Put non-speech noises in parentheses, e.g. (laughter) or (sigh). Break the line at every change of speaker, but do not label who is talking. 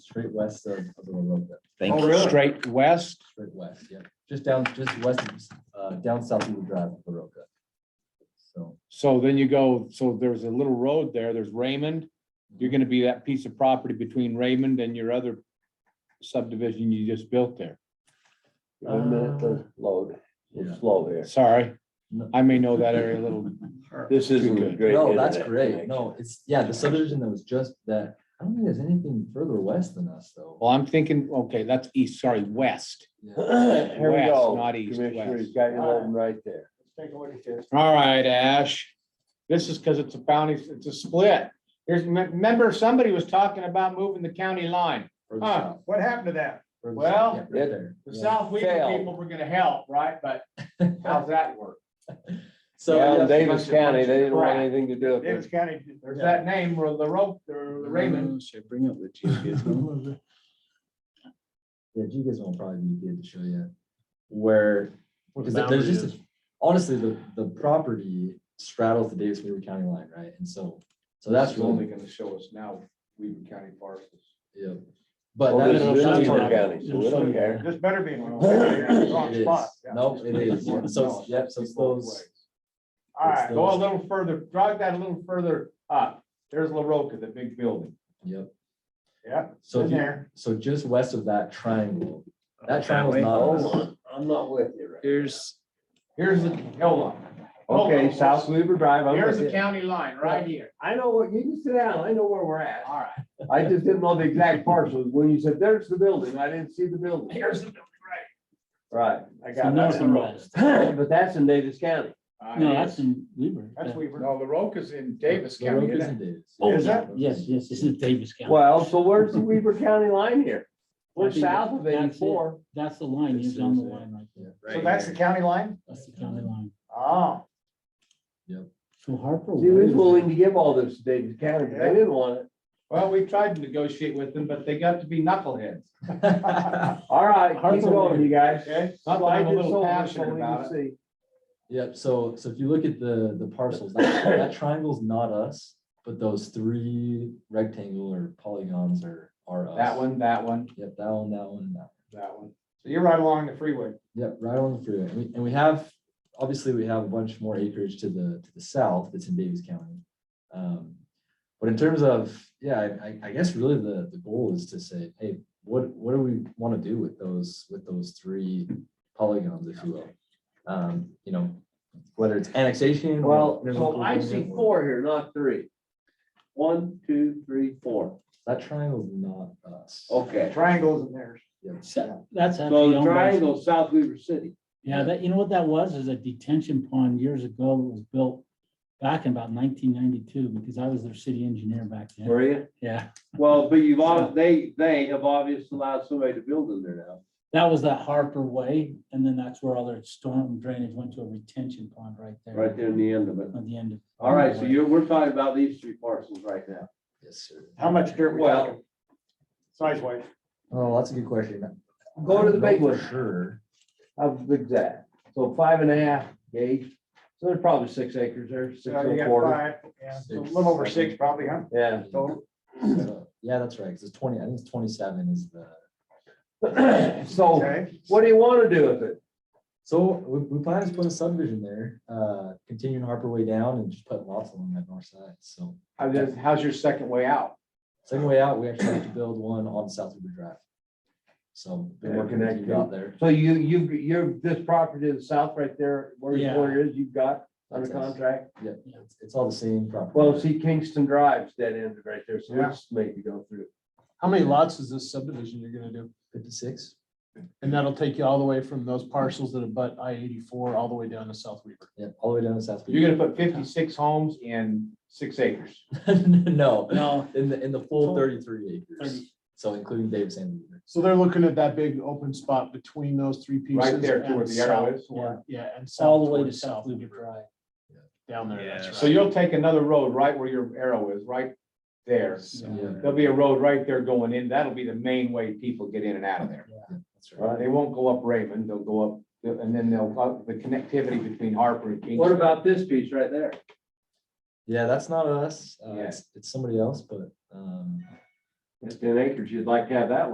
straight west of, of the Loroca,
Thank
Oh,
you.
really?
Straight west.
straight west, yeah, just down, just west, of, uh, down South Eagle Drive, Loroca. So,
So then you go, so there's a little road there. There's Raymond. You're gonna be that piece of property between Raymond and your other subdivision you just built there.
One minute to
Um,
load,
yeah,
it's slow here.
Sorry. I may know that area a
(laughs)
little.
This isn't a
good.
great.
no, that's
internet
great,
connection.
no, it's, yeah, the subdivision that was just that, I don't think there's anything further west than us, though.
Well, I'm thinking, okay, that's east, sorry, west.
Yeah.
(clears throat) (laughs) Here we
West,
go.
not east,
Commissioner,
west.
he's got your loading right there. Take a look at this.
All right, Ash. This is because it's a bounty, it's a split. There's, remember, somebody was talking about moving the county line.
further
Huh,
south,
what happened to that?
further south,
Well,
yeah,
it-
right there.
The
yeah.
South Weaver
Failed.
people were gonna help, right? But how's that work?
(laughs) So,
Down
yeah,
in Davis
bunch of-
County, they didn't want
crap.
anything to do with
Davis
it.
County, there's that name where the rope, the Raymond.
Should I bring up the geodesic?
yeah, you guys will probably be good to show you where,
Where the
because there's
boundary
just, a- honestly, the, the property straddles the Davis Weaver County line, right? And so, so that's
It's
really,
Only gonna show us now Weaver County parcels.
yeah. But
Well,
that
this
is
is
that's
Weaver
what I-
County, so we don't care.
This better be in the
It
wrong
is.
spot. yeah.
Nope, it is. Yeah,
(laughs)
so it's- yep, so it's those-
All right,
it's
go a
those-
little further, drive that a little further up. There's La Roca, the big building.
Yep.
Yeah,
So,
in
if you-
there.
so just west of that triangle, that triangle's
way?
not,
Hold
us.
on, I'm not with you right.
Here's,
Here's the, hold on. Hold
Okay,
on.
South Weaver Drive, I'm
Here's
with
the
you.
county line, right here.
I know what, you can sit down, I know where we're at.
All right.
I just didn't know the exact parcels. When you said, there's the building, I didn't see the building.
Here's the.
Right, I
So
got
north and west.
that. (clears throat) But that's in Davis County.
no, that's in Weaver.
That's Weaver.
No, La Roca's in Davis
The
County.
rope
isn't
isn't
it?
Davis.
Oh,
Is that-
Yes, yes, this is Davis County.
Well, so where's the Weaver County line here?
I
We're
think
south of
that's it.
eighty-four.
That's the line, he's on the line right there.
So that's the county line?
That's the county line.
Ah.
Oh,
So Harper.
She was
Way
willing to give all this to Davis County, but they didn't want it.
Well, we tried to negotiate with them, but they got to be knuckleheads.
All right, keep
Hartford
going,
Weaver.
you guys.
Okay. Not that
Slide
I'm a
this
little
over so
passionate
we
about
can
it.
see.
(laughs) Yep, so, so if you look at the, the parcels, that, that triangle's not us, but those three rectangle or polygons are, are us.
That one, that one,
Yep, that one, that one, and that one.
that one. So you're right along the freeway.
Yep, right on the freeway. And we, and we have, obviously, we have a bunch more acreage to the, to the south that's in Davis County. Um, But in terms of, yeah, I, I- I guess really the, the goal is to say, hey, what, what do we want to do with those, with those three polygons, if you will? Um, You know, whether it's annexation. or-
Well, so I see four here, not three. One, two, three, four.
That triangle's not us.
Okay.
triangles in there.
So That's
Oh. So
actually
the
owned by,
triangle, South Weaver City.
yeah, that, you know what that was, is a detention pond years ago that was built back in about nineteen ninety-two, because I was their city engineer back then.
Were you?
Yeah,
Well, but you've, ob- they, they have obviously allowed somebody to build in there now.
that was that Harper Way, and then that's where all their storm drainage went to a retention pond right there.
Right there in the end of it.
At the end of.
All right, so
Harper Way.
you're, we're talking about these three parcels right now.
Yes, sir.
How much dirt we
Well-
talking? Size wise.
Oh, that's a good question.
Go to the
I don't
big
know
one.
for Sure.
Of the exact, so five and a half gauge, so there's probably six acres there, six
So
and
Uh, you
a
got
quarter.
five, yeah, so a little over six probably, huh?
Yeah.
So
So, Yeah, that's right. Because it's twenty, I think it's twenty-seven is the.
Oh,
So
okay.
what do you want to do with it?
So we, we plan to put a subdivision there, uh, continuing Harper Way down and just putting lots along that north side, so.
How does, how's your second way out?
Second way out, we actually have to build one on South Weaver Drive. So been
Yeah,
working with you
connecting.
out there.
So you, you, you're, this property to the south right there, where your
Yeah.
corner is, you've got under
That's us.
contract.
Yeah, it's- it's all the same property.
Well, see Kingston Drive's dead end right there, so
Yeah.
let's make you go through.
How many lots is this subdivision you're gonna do?
Fifty-six,
And that'll take you all the way from those parcels that abut I eighty-four all the way down to South Weaver.
yeah, all the way down to South.
You're gonna put fifty-six homes in six acres.
gonna. (laughs) No,
No,
in the, in the full
Full.
thirty-three acres,
30.
so including Davis and. Weaver.
So they're looking at that big open spot between those three pieces.
Right there to
and
where the arrow
south
is.
toward- Yeah, and south.
all the way to
toward
South Weaver
Weaver.
Drive.
Down there, that's right.
So you'll take another road right where your arrow is, right there.
Yeah,
There'll be a road right there going in. That'll be the main way people get in and out of there.
that's right.
They won't go up Raven, they'll go up, and then they'll, uh, the connectivity between Harper and Kingston.
What about this piece right there?
Yeah, that's not us, uh,
Yeah.
it's, it's somebody else, but, um,
At ten acres, you'd like to have that